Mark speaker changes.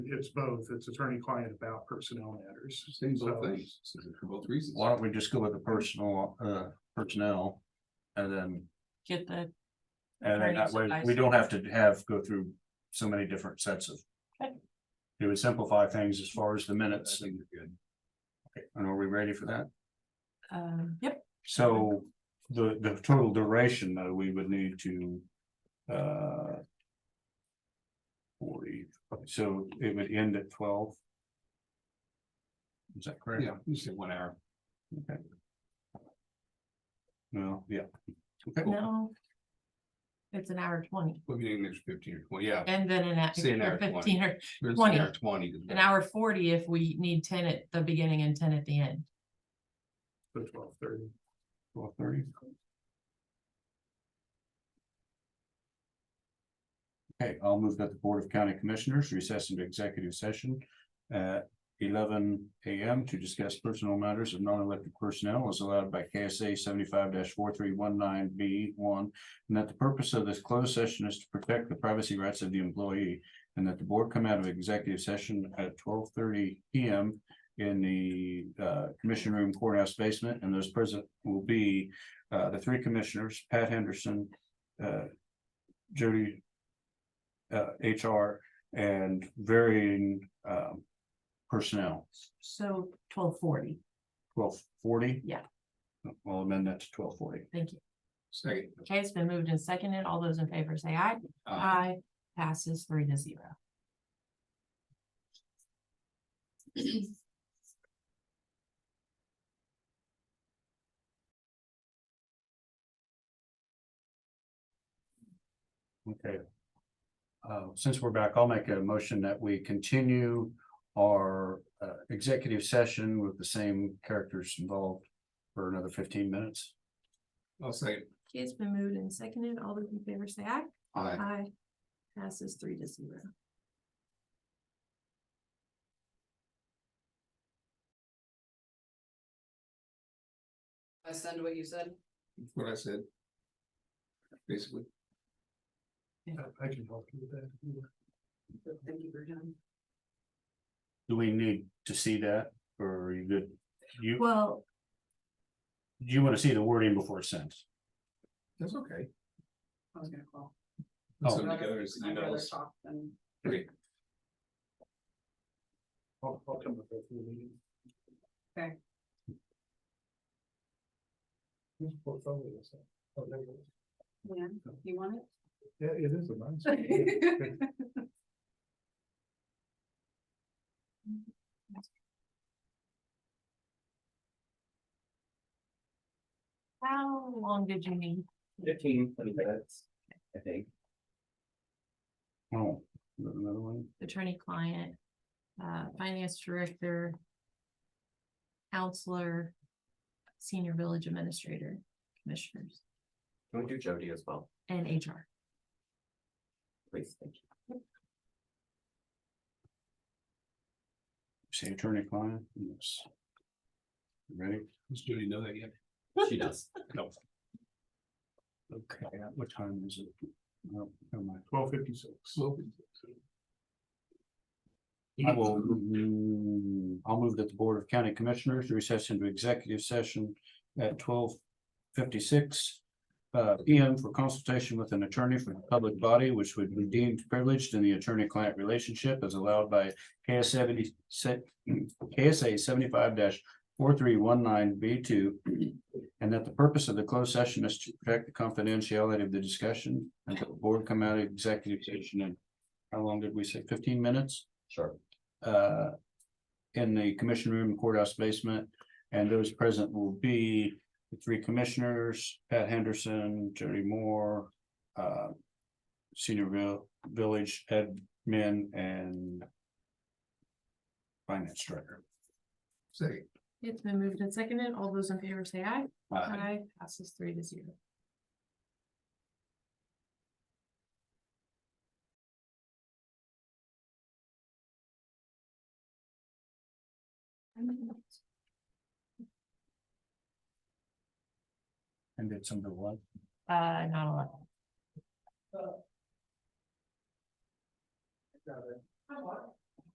Speaker 1: it's both, it's attorney-client about personnel matters.
Speaker 2: Same both things, for both reasons.
Speaker 3: Why don't we just go with the personal, uh, personnel? And then,
Speaker 4: get the,
Speaker 3: and then that way, we don't have to have, go through so many different sets of.
Speaker 4: Okay.
Speaker 3: It would simplify things as far as the
Speaker 2: I
Speaker 3: minutes,
Speaker 2: think you're good.
Speaker 3: and are we ready for that?
Speaker 4: um, yep,
Speaker 3: So the, the total duration, though, we would need to, uh. Forty, so it would end at twelve. Is that correct?
Speaker 2: Yeah, you said one hour.
Speaker 3: No, yeah,
Speaker 4: no. It's an hour twenty
Speaker 2: We'll be in there fifteen or twenty, yeah.
Speaker 4: and then an hour
Speaker 2: Say an hour
Speaker 4: or
Speaker 2: 20.
Speaker 4: fifteen or
Speaker 2: it's an
Speaker 4: 20.
Speaker 2: hour Twenty.
Speaker 4: an hour forty if we need ten at the beginning and ten at the end.
Speaker 1: The twelve thirty.
Speaker 3: twelve thirty. Okay, I'll move that the Board of County Commissioners recess into executive session at eleven AM to discuss personal matters of non-elected personnel as allowed by KSA seventy-five four three one nine B one. And that the purpose of this closed session is to protect the privacy rights of the employee. And that the board come out of executive session at twelve thirty PM in the uh commission room courthouse basement. And those present will be uh the three commissioners, Pat Henderson, uh Jody uh HR and varying um personnel,
Speaker 4: So twelve forty,
Speaker 3: twelve forty?
Speaker 4: Yeah.
Speaker 3: I'll amend that to twelve forty.
Speaker 4: thank you.
Speaker 2: Second.
Speaker 4: Okay, it's been moved and seconded. All those in favor say aye.
Speaker 2: Uh,
Speaker 4: Aye. Passes three to zero.
Speaker 3: Okay. Uh, since we're back, I'll make a motion that we continue our uh executive session with the same characters involved for another fifteen minutes.
Speaker 2: I'll second.
Speaker 4: Okay, it's been moved and seconded. All those in favor say aye.
Speaker 2: Aye.
Speaker 4: Aye. Passes three to zero.
Speaker 5: I send what you said.
Speaker 2: That's what I said. Basically,
Speaker 1: I I can help you with that. if you want.
Speaker 5: Thank you for your time.
Speaker 3: Do we need to see that or are you good? You,
Speaker 4: Well,
Speaker 3: you want to see the wording before it's sent?
Speaker 2: that's okay.
Speaker 5: I was gonna call.
Speaker 3: Oh.
Speaker 2: Put some together as
Speaker 5: I'd rather
Speaker 2: emails.
Speaker 5: talk than-
Speaker 2: Okay,
Speaker 1: I'll, I'll come up with the meeting.
Speaker 5: Okay.
Speaker 1: Whose portfolio is that? Oh, there it is.
Speaker 5: Yeah, you want it?
Speaker 1: Yeah, it is a nice. one.
Speaker 5: Thank
Speaker 4: how long did you need?
Speaker 6: Fifteen, twenty minutes, I think.
Speaker 3: Oh, another one?
Speaker 4: attorney client, uh, finance director, counselor, senior village administrator, commissioners,
Speaker 6: Can we do Jody as well,
Speaker 4: and HR.
Speaker 6: please? Thank you.
Speaker 3: Say attorney client, yes. Ready?
Speaker 2: does Jody know that yet?
Speaker 6: She does.
Speaker 3: No. Okay, at what time is it? No, never mind.
Speaker 1: Twelve fifty-six.
Speaker 2: Well,
Speaker 3: I will, mm, I'll move that the Board of County Commissioners recess into executive session at twelve fifty-six. Uh, PM for consultation with an attorney from the public body, which would be deemed privileged in the attorney-client relationship as allowed by KS seventy set. KSA seventy-five four three one nine B two. And that the purpose of the closed session is to protect the confidentiality of the discussion and that the board come out of executive session and. How long did we say? Fifteen minutes?
Speaker 6: Sure.
Speaker 3: uh, in the commission room courthouse basement. And those present will be the three commissioners, Pat Henderson, Jody Moore, uh, senior vil- village admin and finance director.
Speaker 2: Second.
Speaker 4: It's been moved and seconded. All those in favor say aye.
Speaker 3: Uh,
Speaker 2: Aye.
Speaker 4: Aye. Passes three to zero.
Speaker 3: And did some of the what?
Speaker 4: Uh, not eleven.
Speaker 5: you.